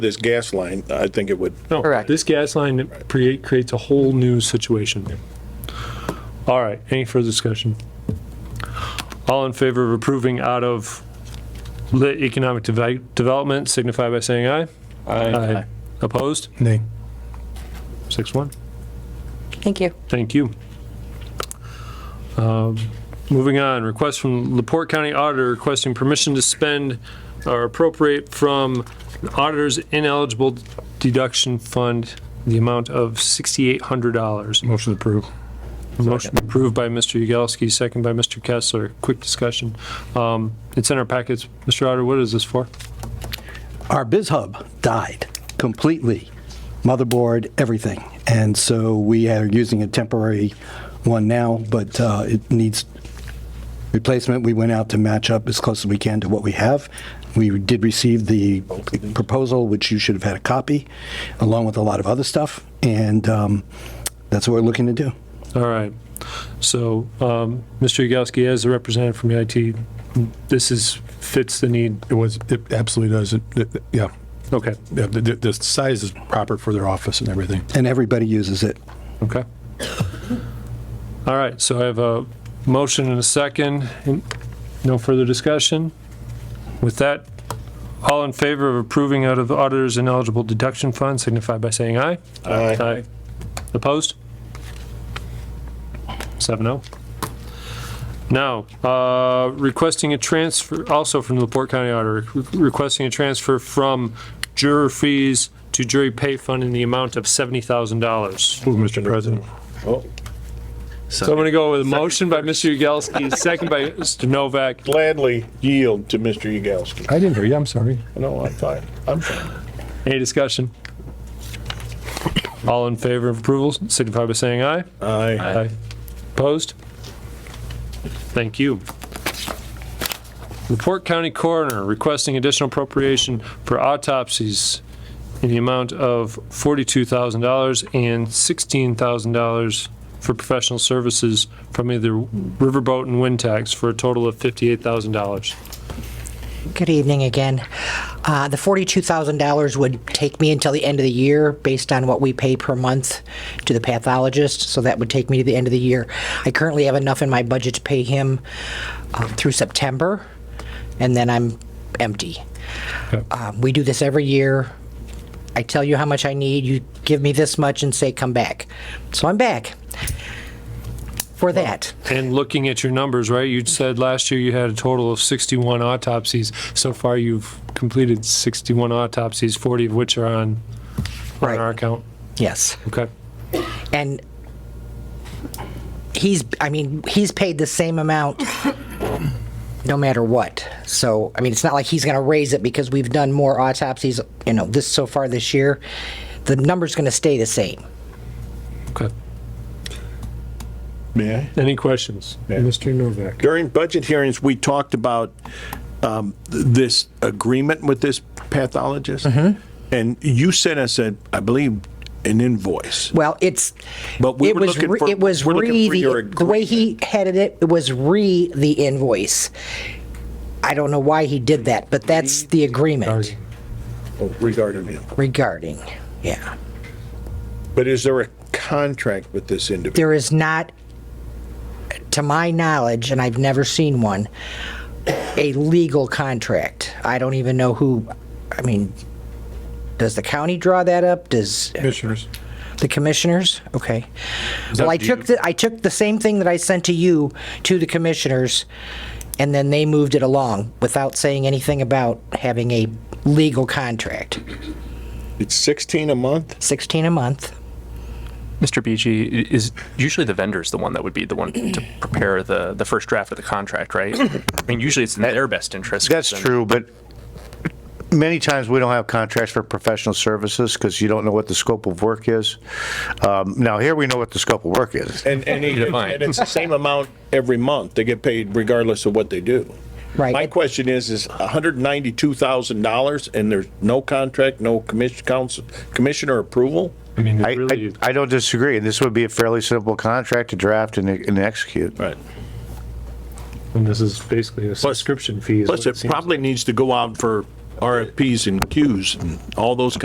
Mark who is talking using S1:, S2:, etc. S1: this gas line, I think it would,
S2: No,
S3: Correct.
S2: This gas line create, creates a whole new situation. All right, any further discussion? All in favor of approving out of lit economic devi- development signify by saying aye. Aye. Opposed?
S4: Nay.
S2: Six one.
S3: Thank you.
S2: Thank you. Um, Moving on, request from Laporte County Auditor requesting permission to spend or appropriate from the auditor's ineligible deduction fund the amount of $6,800.
S4: Motion approved.
S2: Motion approved by Mr. Yagowski, second by Mr. Kessler. Quick discussion. Um, It's in our packets. Mr. Auditor, what is this for?
S5: our biz hub died completely motherboard everything and so we are using a temporary one now but uh, it needs replacement we went out to match up as close as we can to what we have we did receive the proposal which you should have had a copy along with a lot of other stuff and um, that's what we're looking to do
S2: All right. So, um, Mr. Yagowski, as a representative from IT, this is, fits the need.
S4: It was, it absolutely does. It- it- Yeah.
S2: Okay.
S4: Yeah, The, the- the size is proper for their office and everything.
S5: and everybody uses it
S2: Okay. All right, so I have a motion and a second. No further discussion? With that, all in favor of approving out of the auditor's ineligible deduction fund signify by saying aye.
S1: I
S2: Aye. Opposed? Seven oh. Now, uh, requesting a transfer, also from the Port County Auditor, requesting a transfer from juror fees to jury pay fund in the amount of $70,000.
S4: Move, Mr. President.
S2: So I'm going to go with a motion by Mr. Yagowski, second by Mr. Novak.
S1: gladly yield to Mr. Yagowski.
S4: I didn't hear you, I'm sorry.
S1: No, I'm fine, I'm fine.
S2: Any discussion? All in favor of approval, signify by saying aye.
S1: Aye.
S2: Opposed? Thank you. Report County Coroner requesting additional appropriation for autopsies in the amount of $42,000 and $16,000 for professional services from either Riverboat and Wind Tax for a total of $58,000.
S6: Good evening again. Uh, The $42,000 would take me until the end of the year based on what we pay per month to the pathologist, so that would take me to the end of the year. I currently have enough in my budget to pay him um, through September, and then I'm empty. Um, We do this every year. I tell you how much I need, you give me this much and say, "Come back." So I'm back for that.
S2: And looking at your numbers, right, you said last year you had a total of 61 autopsies. So far, you've completed 61 autopsies, 40 of which are on, on
S6: Right.
S2: our account.
S6: Yes.
S2: Okay.
S6: and he's i mean he's paid the same amount no matter what so i mean it's not like he's going to raise it because we've done more autopsies you know this so far this year the number's going to stay the same
S2: Okay.
S1: May I?
S2: Any questions? Mr. Novak.
S1: During budget hearings, we talked about um, th- this agreement with this pathologist. And you sent us, a, I believe, an invoice.
S6: well it's
S1: But we
S6: it
S1: were
S6: was
S1: looking
S6: re,
S1: for-
S6: it was
S1: we're looking
S6: re
S1: for your
S6: the, the way he headed it it was re the invoice i don't know why he did that but that's the agreement
S1: Oh, Regarding him.
S6: regarding yeah
S1: But is there a contract with this individual?
S6: there is not, to my knowledge, and I've never seen one, a legal contract. I don't even know who, I mean, does the county draw that up? Does
S4: Commissioners.
S6: the commissioners? Okay. Well, I took, the I took the same thing that I sent to you to the commissioners, and then they moved it along without saying anything about having a legal contract.
S1: It's 16 a month?
S6: 16 a month.
S7: Mr. BG, i- is usually the vendor's the one that would be the one to prepare the, the first draft of the contract, right? I mean, usually it's in their best interest. 'cause
S8: That's
S7: then-
S8: true, but many times we don't have contracts for professional services because you don't know what the scope of work is. Um, Now, here we know what the scope of work is.
S1: And, and, he- and
S7: Defined.
S1: it's the same amount every month. They get paid regardless of what they do.
S6: Right.
S1: My question is, is $192,000 and there's no contract, no commission, council, commissioner approval?
S2: I mean,
S8: I,
S2: it really,
S8: I- I don't disagree, and this would be a fairly simple contract to draft and and execute.
S1: Right.
S2: and this is basically a subscription fee. is
S1: Plus,
S2: what
S1: it
S2: seems.
S1: probably needs to go out for RFPs and queues and all those